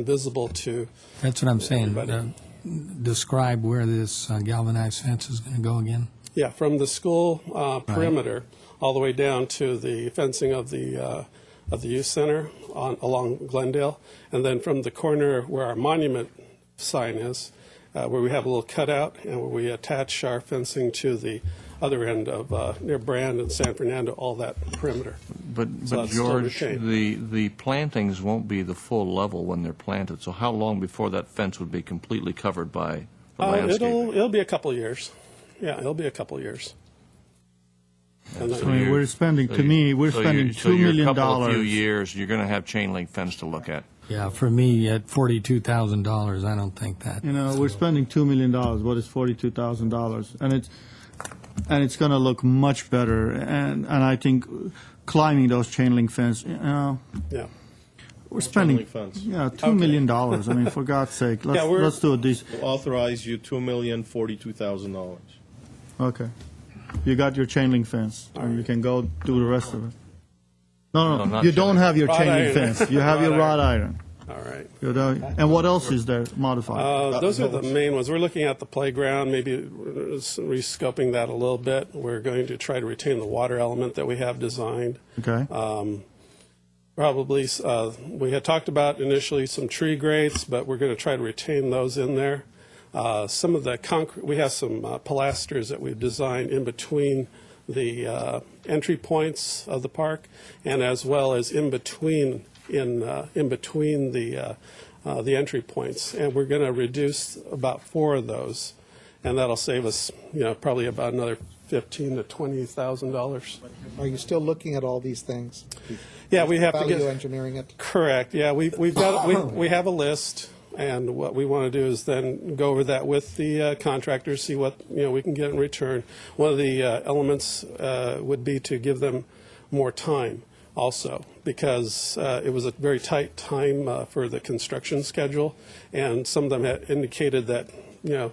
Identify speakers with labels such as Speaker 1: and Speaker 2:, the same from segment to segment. Speaker 1: invisible to,
Speaker 2: That's what I'm saying.
Speaker 1: Everybody.
Speaker 2: Uh, Describe where this uh, galvanized fence is going to go again.
Speaker 1: yeah, from the school uh, perimeter all the way down to the fencing of the, uh, of the youth center on, along Glendale. And then from the corner where our monument sign is, uh, where we have a little cutout and where we attach our fencing to the other end of, uh, near Brand and San Fernando, all that perimeter.
Speaker 3: But,
Speaker 1: So
Speaker 3: but
Speaker 1: that's still
Speaker 3: George,
Speaker 1: retained.
Speaker 3: the, the plantings won't be the full level when they're planted, so how long before that fence would be completely covered by the
Speaker 1: Uh,
Speaker 3: landscape?
Speaker 1: It'll, it'll be a couple years. Yeah, it'll be a couple years. And
Speaker 3: So
Speaker 4: I
Speaker 1: then-
Speaker 4: mean,
Speaker 3: you're-
Speaker 4: we're spending-
Speaker 3: so
Speaker 4: to
Speaker 3: you-
Speaker 4: me, we're
Speaker 3: so you're-
Speaker 4: spending
Speaker 3: so
Speaker 4: $2
Speaker 3: you're
Speaker 4: million
Speaker 3: a couple of few
Speaker 4: dollars.
Speaker 3: years, you're going to have chain link fence to look at.
Speaker 2: Yeah, for me, at $42,000, I don't think that.
Speaker 4: You know, we're spending two million dollars. What is forty-two thousand dollars? And it's and it's going to look much better. And and I think climbing those chain link fence. You know,
Speaker 1: yeah.
Speaker 4: we're spending
Speaker 5: link fence.
Speaker 4: yeah two million dollars. I mean, for God's sake, let's
Speaker 1: Yeah, we're-
Speaker 4: let's do it. These
Speaker 5: authorize you two million forty-two thousand dollars.
Speaker 4: okay. You got your chain link fence, and you can go do the rest of it. No,
Speaker 3: No,
Speaker 4: no,
Speaker 3: not
Speaker 4: you
Speaker 3: chain
Speaker 4: don't
Speaker 3: link.
Speaker 4: have your
Speaker 1: Wrought
Speaker 4: chain link
Speaker 1: iron.
Speaker 4: fence. You have your
Speaker 1: Wrought
Speaker 4: wrought iron.
Speaker 1: All right.
Speaker 4: You know, and what else is there modified?
Speaker 1: Uh, those are the
Speaker 5: those.
Speaker 1: main ones. We're looking at the playground, maybe uh, s- rescoping that a little bit. We're going to try to retain the water element that we have designed.
Speaker 4: okay.
Speaker 1: Um, Probably, uh, we had talked about initially some tree grates, but we're going to try to retain those in there. Uh, Some of the concrete, we have some uh, pilasters that we've designed in between the uh, entry points of the park and as well as in between, in, uh, in between the, uh, uh, the entry points. And we're going to reduce about four of those. And that'll save us, you know, probably about another fifteen to $20,000.
Speaker 6: Are you still looking at all these things?
Speaker 1: Yeah, we have to get.
Speaker 6: Value engineering it?
Speaker 1: Correct, yeah, we've, we've got, we, we have a list, and what we want to do is then go over that with the uh, contractors, see what, you know, we can get in return. One of the uh, elements uh, would be to give them more time also, because uh, it was a very tight time uh, for the construction schedule, and some of them had indicated that, you know,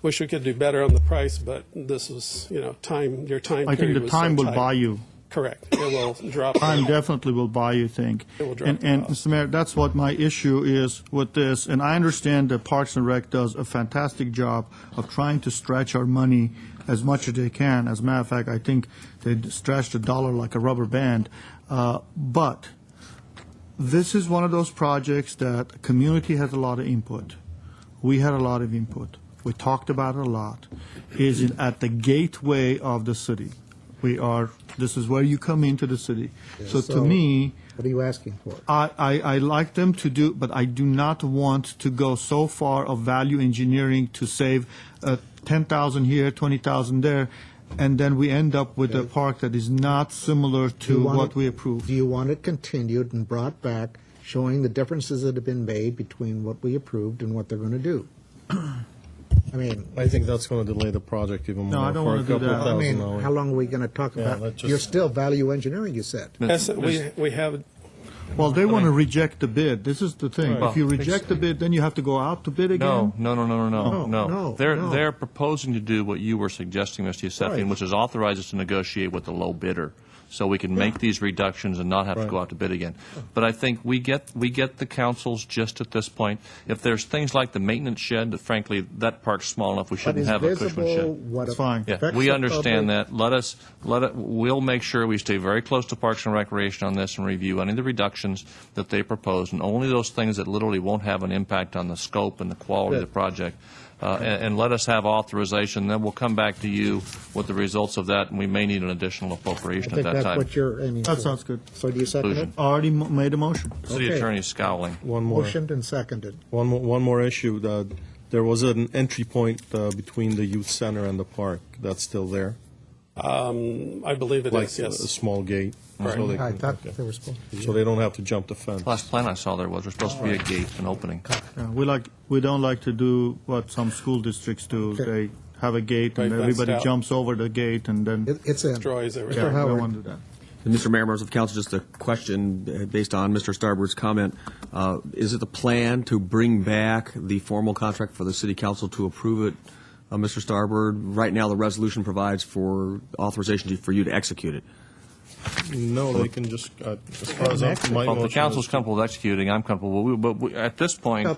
Speaker 1: wish we could do better on the price, but this was, you know, time, your time
Speaker 4: I think
Speaker 1: period
Speaker 4: the
Speaker 1: was so
Speaker 4: time will
Speaker 1: tight.
Speaker 4: buy you.
Speaker 1: Correct, it will drop.
Speaker 4: Time definitely will buy you think.
Speaker 1: It will drop
Speaker 4: And,
Speaker 1: the
Speaker 4: and,
Speaker 1: cost.
Speaker 4: Mr. Mayor, that's what my issue is with this, and I understand that Parks and Rec does a fantastic job of trying to stretch our money as much as they can. As a matter of fact, I think they stretch the dollar like a rubber band. Uh, But this is one of those projects that community has a lot of input. We had a lot of input. We talked about it a lot. Is it at the gateway of the city? We are. This is where you come into the city. So, to
Speaker 6: So-
Speaker 4: me,
Speaker 6: What are you asking for?
Speaker 4: I, I, I like them to do, but I do not want to go so far of value engineering to save uh, 10,000 here, 20,000 there, and then we end up with a park that is not similar
Speaker 6: Do
Speaker 4: to
Speaker 6: you want
Speaker 4: what
Speaker 6: it-
Speaker 4: we approved.
Speaker 6: Do you want it continued and brought back, showing the differences that have been made between what we approved and what they're going to do? I mean,
Speaker 5: I think that's going to delay the project even more.
Speaker 4: No, I don't
Speaker 5: for a
Speaker 4: wanna do
Speaker 5: couple
Speaker 4: that. I
Speaker 6: I
Speaker 5: thousand
Speaker 6: mean,
Speaker 5: dollars.
Speaker 6: how long are we going to talk
Speaker 5: Yeah,
Speaker 6: about?
Speaker 5: let's just-
Speaker 6: You're still value engineering, you said.
Speaker 1: Yes, we, we have
Speaker 4: Well, they want to reject the bid. This is the thing.
Speaker 3: Well-
Speaker 4: If you reject the bid, then you have to go out to bid again.
Speaker 3: No, no, no, no, no, no,
Speaker 4: No,
Speaker 3: no.
Speaker 6: Oh, no,
Speaker 3: They're,
Speaker 6: no.
Speaker 3: they're proposing to do what you were suggesting, Mr. Yusefian,
Speaker 6: Right.
Speaker 3: which is authorize us to negotiate with the low bidder, so we can make these reductions and not have to go out to bid again. But I think we get, we get the councils just at this point. If there's things like the maintenance shed, that frankly, that park's small enough, we
Speaker 6: What
Speaker 3: shouldn't
Speaker 6: is
Speaker 3: have a Cushman
Speaker 6: visible,
Speaker 3: shed.
Speaker 6: what
Speaker 4: It's fine.
Speaker 3: Yeah,
Speaker 6: affects
Speaker 3: we
Speaker 6: the
Speaker 3: understand
Speaker 6: public.
Speaker 3: that. Let us, let it, we'll make sure we stay very close to Parks and Recreation on this and review any of the reductions that they propose, and only those things that literally won't have an impact on the scope and the quality of the project. Uh, And and let us have authorization, then we'll come back to you with the results of that, and we may need an additional appropriation at
Speaker 6: I think
Speaker 3: that
Speaker 6: that's
Speaker 3: time.
Speaker 6: what you're aiming for.
Speaker 4: That sounds good.
Speaker 6: So do you second it?
Speaker 3: Conclusion.
Speaker 4: Already mo- made a motion.
Speaker 3: City
Speaker 6: okay.
Speaker 3: attorney scowling.
Speaker 5: One more,
Speaker 6: Motioned and seconded.
Speaker 5: one more, one more issue. That there was an entry point uh, between the youth center and the park. That's still there,
Speaker 1: Um, I believe it
Speaker 5: like uh,
Speaker 1: is,
Speaker 5: a, a
Speaker 1: yes.
Speaker 5: small gate, so, they
Speaker 6: I
Speaker 5: can,
Speaker 6: thought
Speaker 5: okay.
Speaker 6: they were supposed to.
Speaker 5: so they don't have to jump the fence.
Speaker 3: Last plan I saw there was, there's supposed to be a gate, an opening.
Speaker 4: Yeah, We like, we don't like to do what some school districts do.
Speaker 6: Okay.
Speaker 4: They have a gate and
Speaker 1: Right, fenced
Speaker 4: everybody
Speaker 1: out.
Speaker 4: jumps over the gate and then,
Speaker 6: It- It's in.
Speaker 1: Destroys everything.
Speaker 4: yeah, we
Speaker 6: Howard.
Speaker 4: don't want to do that.
Speaker 7: Mr. Mayor, members of council, just a question uh, based on Mr. Starbird's comment. Uh, Is it the plan to bring back the formal contract for the city council to approve it, uh, Mr. Starbird? Right now, the resolution provides for authorization to- for you to execute it.
Speaker 5: No, they can just, uh, as far as
Speaker 6: Next.
Speaker 5: I'm- my
Speaker 3: Well, if the
Speaker 5: motion is
Speaker 3: council's comfortable with executing, I'm comfortable, but we- but we- at this point,